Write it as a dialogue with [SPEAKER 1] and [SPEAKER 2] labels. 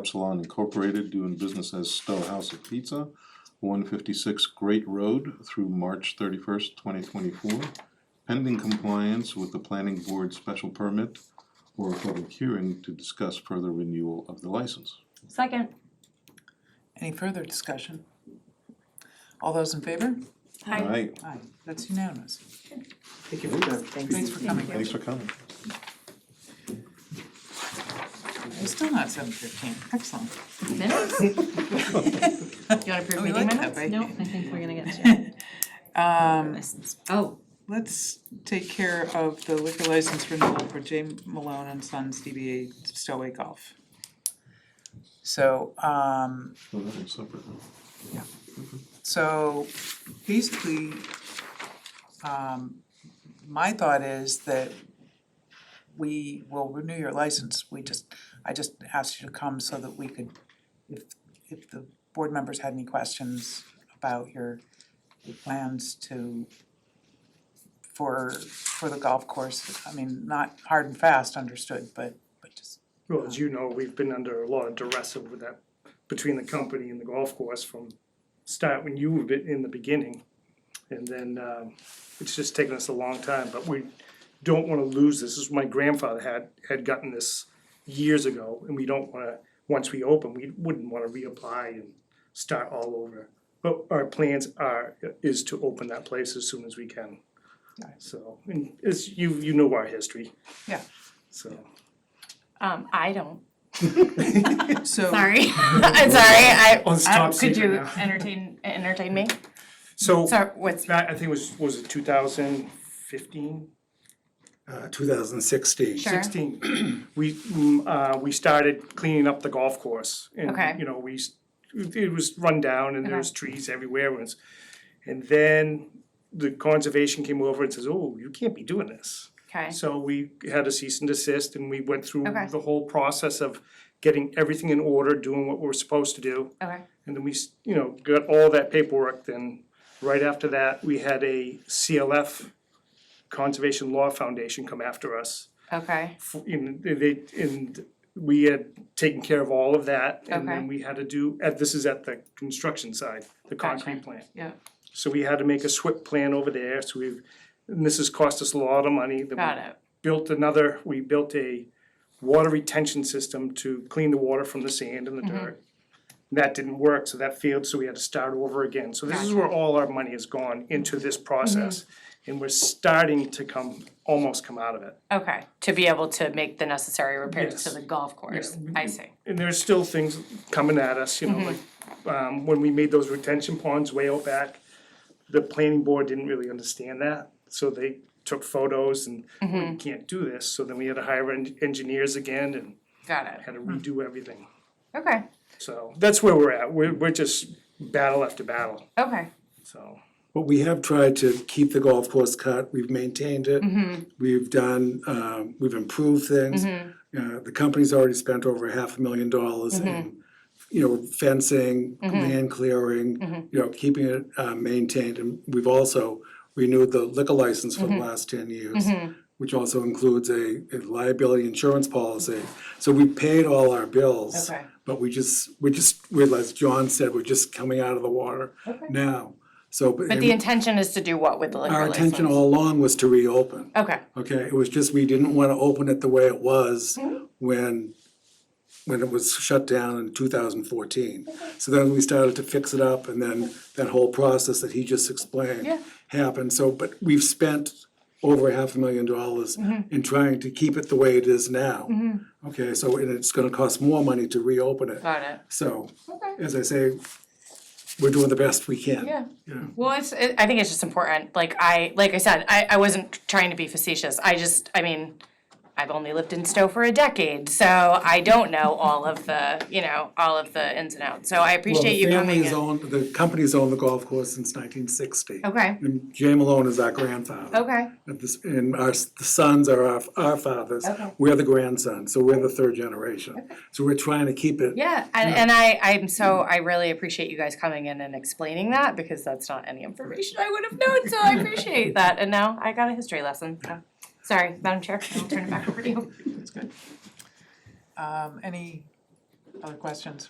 [SPEAKER 1] Epsilon Incorporated, doing business as Stowe House of Pizza, one fifty-six Great Road through March thirty-first, twenty twenty-four, pending compliance with the planning board special permit or a public hearing to discuss further renewal of the license.
[SPEAKER 2] Second.
[SPEAKER 3] Any further discussion? All those in favor?
[SPEAKER 1] Aye.
[SPEAKER 3] Aye, that's unanimous.
[SPEAKER 4] Thank you for that.
[SPEAKER 3] Thanks for coming.
[SPEAKER 1] Thanks for coming.
[SPEAKER 3] We're still not seven fifteen, excellent.
[SPEAKER 2] Minutes? You wanna
[SPEAKER 3] Oh,
[SPEAKER 2] approve
[SPEAKER 3] we
[SPEAKER 2] meeting
[SPEAKER 3] like
[SPEAKER 2] minutes?
[SPEAKER 3] that, right?
[SPEAKER 2] No, I think we're gonna get to
[SPEAKER 3] Um,
[SPEAKER 2] license. Oh,
[SPEAKER 3] let's take care of the liquor license renewal for J Malone and Sons DBA Stowaway Golf. So, um,
[SPEAKER 1] Oh, that was separate.
[SPEAKER 3] So basically, um, my thought is that we will renew your license, we just, I just asked you to come so that we could, if, if the board members had any questions about your, your plans to, for, for the golf course, I mean, not hard and fast, understood, but, but just,
[SPEAKER 4] Well, as you know, we've been under a lot of duress over that, between the company and the golf course from start when you were bit- in the beginning. And then, um, it's just taken us a long time, but we don't wanna lose this. This is my grandfather had, had gotten this years ago. And we don't wanna, once we open, we wouldn't wanna reapply and start all over. But our plans are, is to open that place as soon as we can.
[SPEAKER 3] Right.
[SPEAKER 4] So, and it's, you, you know our history.
[SPEAKER 3] Yeah.
[SPEAKER 4] So.
[SPEAKER 2] um, I don't,
[SPEAKER 3] so.
[SPEAKER 2] sorry, I'm sorry, I,
[SPEAKER 4] Well, it's
[SPEAKER 2] I-
[SPEAKER 4] top
[SPEAKER 2] could
[SPEAKER 4] secret
[SPEAKER 2] you
[SPEAKER 4] now.
[SPEAKER 2] entertain, entertain me?
[SPEAKER 4] So,
[SPEAKER 2] Sorry, what's,
[SPEAKER 4] that, I think it was, was it two thousand fifteen?
[SPEAKER 5] uh, 2016.
[SPEAKER 2] Sure.
[SPEAKER 4] Sixteen, we, mm, uh, we started cleaning up the golf course
[SPEAKER 2] Okay.
[SPEAKER 4] and, you know, we, s- it was run down and there
[SPEAKER 2] Okay.
[SPEAKER 4] was trees everywhere and it's- and then the conservation came over and says, oh, you can't be doing this.
[SPEAKER 2] okay,
[SPEAKER 4] So we had a cease and desist and we went through
[SPEAKER 2] Okay.
[SPEAKER 4] the whole process of getting everything in order, doing what we're supposed to do.
[SPEAKER 2] okay,
[SPEAKER 4] And then we, s- you know, got all that paperwork, then right after that, we had a CLF, Conservation Law Foundation come after us.
[SPEAKER 2] okay,
[SPEAKER 4] f- In, they, and we had taken care of all of that, and
[SPEAKER 2] Okay.
[SPEAKER 4] then we had to do, uh, this is at the construction side, the concrete
[SPEAKER 2] Gotcha.
[SPEAKER 4] plant.
[SPEAKER 2] yeah,
[SPEAKER 4] So we had to make a SWIP plan over there, so we've, and this has cost us a lot of money. then we
[SPEAKER 2] got it,
[SPEAKER 4] Built another, we built a water retention system to clean the water from the sand and the dirt. That didn't work, so that failed, so we had to start over again. So this is where all our money has gone into this process. And we're starting to come, almost come out of it.
[SPEAKER 2] okay, to be able to make the necessary repairs to
[SPEAKER 4] Yes.
[SPEAKER 2] the golf course, I see,
[SPEAKER 4] And there's still things coming at us, you know, like, um, when we made those retention ponds way out back, the planning board didn't really understand that, so they took photos and we can't do this, so then we had to hire en- engineers again and
[SPEAKER 2] got it,
[SPEAKER 4] had to redo everything.
[SPEAKER 2] okay,
[SPEAKER 4] So that's where we're at. We're, we're just battle after battle,
[SPEAKER 2] okay,
[SPEAKER 4] so.
[SPEAKER 5] But we have tried to keep the golf course cut, we've maintained it.
[SPEAKER 2] Mm-hmm.
[SPEAKER 5] We've done, um, we've improved things.
[SPEAKER 2] Mm-hmm.
[SPEAKER 5] Uh, the company's already spent over half a million dollars in, you know, fencing,
[SPEAKER 2] Mm-hmm.
[SPEAKER 5] land clearing, you know, keeping it, uh, maintained. And we've also renewed the liquor license
[SPEAKER 2] Mm-hmm.
[SPEAKER 5] for the last ten years, which also includes a, a liability insurance policy. So we paid all our bills.
[SPEAKER 2] Okay.
[SPEAKER 5] But we just, we just, we're, as John said, we're just coming out of the water now. So, but
[SPEAKER 2] but the intention is to do what with the liquor
[SPEAKER 5] our
[SPEAKER 2] license?
[SPEAKER 5] intention all along was to reopen.
[SPEAKER 2] Okay,
[SPEAKER 5] Okay, it was just, we didn't wanna open it the way it was
[SPEAKER 2] Mm-hmm.
[SPEAKER 5] when, when it was shut down in two thousand fourteen. So then we started to fix it up and then that whole process that he just explained
[SPEAKER 2] Yeah.
[SPEAKER 5] happened, so, but we've spent over half a million dollars
[SPEAKER 2] Mm-hmm.
[SPEAKER 5] in trying to keep it the way it is now. Okay, so, and it's gonna cost more money to reopen it,
[SPEAKER 2] got it,
[SPEAKER 5] so,
[SPEAKER 2] okay.
[SPEAKER 5] as I say, we're doing the best we can.
[SPEAKER 2] Yeah.
[SPEAKER 5] Yeah.
[SPEAKER 2] Well, it's, it, I think it's just important, like I, like I said, I, I wasn't trying to be facetious, I just, I mean, I've only lived in Stowe for a decade, so I don't know all of the, you know, all of the ins and outs, so I
[SPEAKER 5] Well, the
[SPEAKER 2] appreciate you coming
[SPEAKER 5] family's
[SPEAKER 2] in.
[SPEAKER 5] owned, the company's owned the golf course since nineteen sixty.
[SPEAKER 2] Okay,
[SPEAKER 5] And Jay Malone is our grandfather.
[SPEAKER 2] okay,
[SPEAKER 5] And this- And our, s- the sons are our, our fathers.
[SPEAKER 2] Okay.
[SPEAKER 5] We're the grandsons, so we're the third generation. So we're trying to keep it.
[SPEAKER 2] yeah, and, and I, I'm so, I really appreciate you guys coming in and explaining that, because that's not any information I would have known, so I appreciate that, and now I got a history lesson, so. Sorry, Madam Chair, I'll turn it back over to you.
[SPEAKER 3] Um, any Other questions?